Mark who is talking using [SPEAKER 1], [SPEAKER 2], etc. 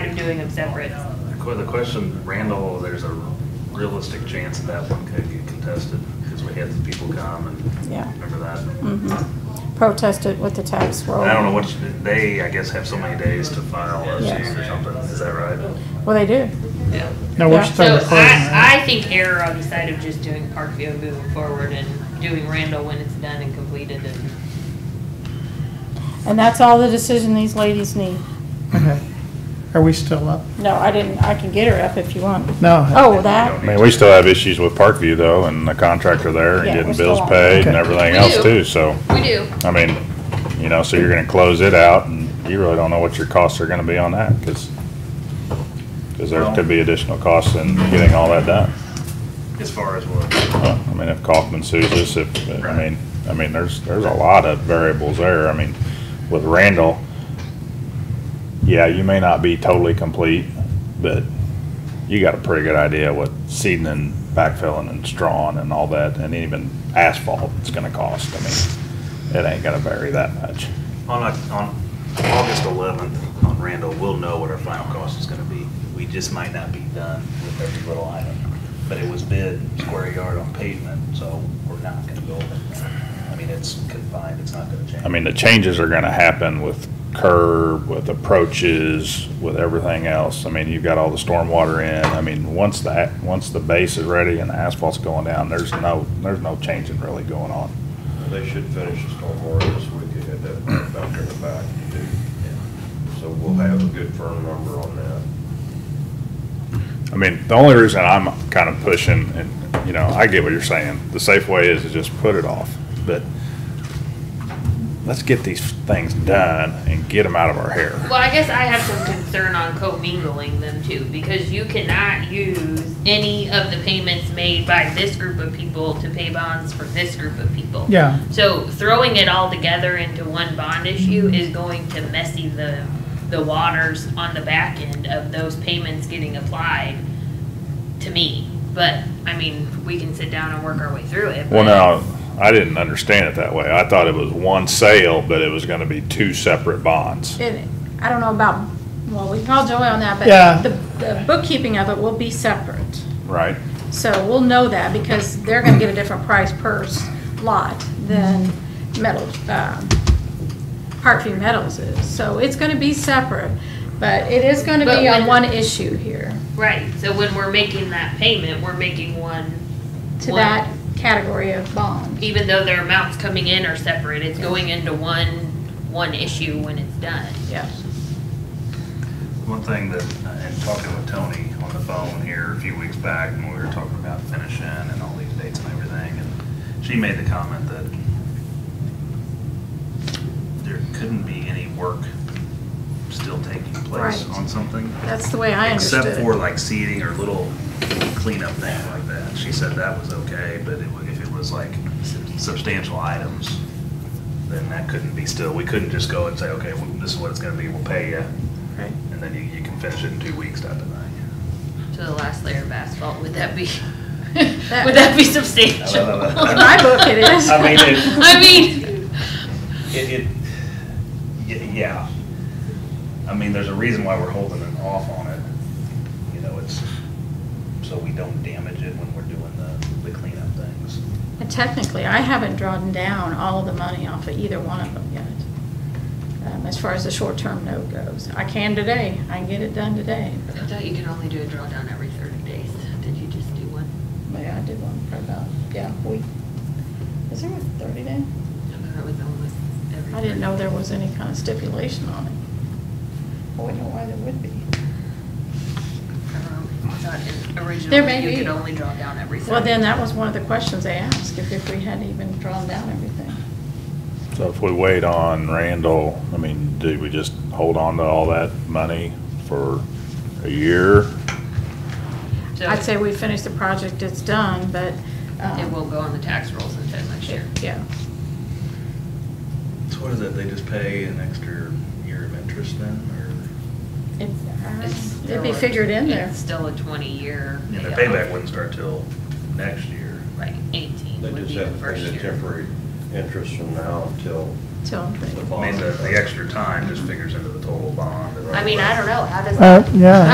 [SPEAKER 1] doing them separate.
[SPEAKER 2] The que- The question, Randall, there's a realistic chance that that one could get contested because we had the people come
[SPEAKER 3] Yeah.
[SPEAKER 2] and remember that.
[SPEAKER 3] Mhm. Protest it with the tax roll.
[SPEAKER 2] And I don't know what, they, I guess, have so many days to file RCs or something. Is that right?
[SPEAKER 3] Well, they do.
[SPEAKER 1] Yeah.
[SPEAKER 4] No, we're
[SPEAKER 3] Yeah.
[SPEAKER 1] So
[SPEAKER 4] still recording.
[SPEAKER 1] I,
[SPEAKER 4] right?
[SPEAKER 1] I think error on the side of just doing Parkview moving forward and doing Randall when it's done and completed and
[SPEAKER 3] And that's all the decision these ladies need.
[SPEAKER 4] Okay. Are we still up?
[SPEAKER 3] No, I didn't, I can get her up if you want.
[SPEAKER 4] No.
[SPEAKER 3] Oh, that?
[SPEAKER 5] I mean, we still have issues with Parkview though, and the contractor there, and
[SPEAKER 3] Yeah, we're
[SPEAKER 5] getting
[SPEAKER 3] still
[SPEAKER 5] bills
[SPEAKER 3] on.
[SPEAKER 5] paid and
[SPEAKER 4] Okay.
[SPEAKER 5] everything
[SPEAKER 6] We
[SPEAKER 5] else
[SPEAKER 6] do.
[SPEAKER 5] too, so,
[SPEAKER 6] We do.
[SPEAKER 5] I mean, you know, so you're gonna close it out, and you really don't know what your costs are gonna be on that, cause, 'cause there could be additional costs in getting all that done.
[SPEAKER 2] As far as what?
[SPEAKER 5] Uh, I mean, if Kaufman sues us, if, I mean, I mean, there's, there's a lot of variables there. I mean, with Randall, yeah, you may not be totally complete, but you got a pretty good idea what seeding and backfilling and strawing and all that, and even asphalt it's gonna cost. I mean, it ain't gonna vary that much.
[SPEAKER 2] On, Oc- on August 11th, on Randall, we'll know what our final cost is going to be. We just might not be done with every little item. But it was bid square yard on pavement, so we're not going to go over that. I mean, it's confined, it's not going to change.
[SPEAKER 5] I mean, the changes are gonna happen with curb, with approaches, with everything else. I mean, you've got all the stormwater in. I mean, once that, once the base is ready and the asphalt's going down, there's no, there's no changing really going on.
[SPEAKER 7] They should finish the stormwater this week, they had that back in the back to do. So we'll have a good firm number on that.
[SPEAKER 5] I mean, the only reason I'm kind of pushing, and, you know, I get what you're saying. The safe way is to just put it off, but let's get these things done and get them out of our hair.
[SPEAKER 1] Well, I guess I have some concern on commingling them too, because you cannot use any of the payments made by this group of people to pay bonds for this group of people.
[SPEAKER 4] Yeah.
[SPEAKER 1] So throwing it all together into one bond issue is going to messy the, the waters on the back end of those payments getting applied to me. But, I mean, we can sit down and work our way through it. but-
[SPEAKER 5] Well, now, I didn't understand it that way. I thought it was one sale, but it was gonna be two separate bonds.
[SPEAKER 3] It- I don't know about, well, we can call Joey on that,
[SPEAKER 4] Yeah.
[SPEAKER 3] but the the bookkeeping of it will be separate.
[SPEAKER 5] Right.
[SPEAKER 3] So we'll know that because they're gonna get a different price per s- lot than metal, um, Parkview Metals is. So it's gonna be separate, but it is gonna
[SPEAKER 1] But
[SPEAKER 3] be on
[SPEAKER 1] when-
[SPEAKER 3] one issue here
[SPEAKER 1] Right, so when we're making that payment, we're making one.
[SPEAKER 3] to
[SPEAKER 1] one-
[SPEAKER 3] that category of bond.
[SPEAKER 1] even though their amounts coming in are separate, it's going into one, one issue when it's done.
[SPEAKER 3] Yes.
[SPEAKER 2] One thing that, and talking with Tony on the phone here a few weeks back, when we were talking about finishing and all these dates and everything, and she made the comment that there couldn't be any work still taking place
[SPEAKER 3] Right.
[SPEAKER 2] on something.
[SPEAKER 3] That's the way I understood
[SPEAKER 2] Except for
[SPEAKER 3] it.
[SPEAKER 2] like seeding or little cleanup thing like that. She said that was okay, but it wa- if it was like substantial items, then that couldn't be still, we couldn't just go and say, okay, well, this is what it's gonna be, we'll pay you.
[SPEAKER 3] Right.
[SPEAKER 2] And then you, you can finish it in two weeks, type of thing.
[SPEAKER 1] To the last layer of asphalt, would that be, would that be substantial?
[SPEAKER 3] In my book, it is.
[SPEAKER 2] I mean, it,
[SPEAKER 1] I mean,
[SPEAKER 2] it, it, y- yeah. I mean, there's a reason why we're holding it off on it. You know, it's so we don't damage it when we're doing the, the cleanup things.
[SPEAKER 3] And Technically, I haven't drawn down all of the money off of either one of them yet, um, as far as the short-term note goes. I can today, I can get it done today,
[SPEAKER 1] I thought you could only do a drawdown every thirty days. Did you just do one?
[SPEAKER 3] but I did one for about, yeah, a week. Is there a thirty day?
[SPEAKER 1] I thought it was almost every.
[SPEAKER 3] I didn't know there was any kind of stipulation on it. I wouldn't know why there would be. There may
[SPEAKER 1] Originally,
[SPEAKER 3] be.
[SPEAKER 1] you could only draw down every thirty.
[SPEAKER 3] Well, then, that was one of the questions they asked, if, if we hadn't even drawn down everything.
[SPEAKER 5] So if we wait on Randall, I mean, do we just hold on to all that money for a year?
[SPEAKER 1] So
[SPEAKER 3] I'd say we finished the project, it's done, but,
[SPEAKER 1] It
[SPEAKER 3] um,
[SPEAKER 1] will go on the tax rolls until next year.
[SPEAKER 3] yeah.
[SPEAKER 2] So what is it, they just pay an extra year of interest then, or?
[SPEAKER 3] It- uh,
[SPEAKER 1] It's
[SPEAKER 3] It'd be
[SPEAKER 1] still a-
[SPEAKER 3] figured in there.
[SPEAKER 1] It's still a twenty-year.
[SPEAKER 2] And their payback wouldn't start till next year.
[SPEAKER 1] Right, eighteen
[SPEAKER 7] They
[SPEAKER 1] would
[SPEAKER 7] just
[SPEAKER 1] be the
[SPEAKER 7] have to pay
[SPEAKER 1] first
[SPEAKER 7] the
[SPEAKER 1] year.
[SPEAKER 7] temporary interest from now until
[SPEAKER 3] till they
[SPEAKER 2] I mean, the, the extra time just figures into the total bond.
[SPEAKER 1] I mean, I don't know, how does
[SPEAKER 4] Uh,
[SPEAKER 1] that?
[SPEAKER 4] yeah,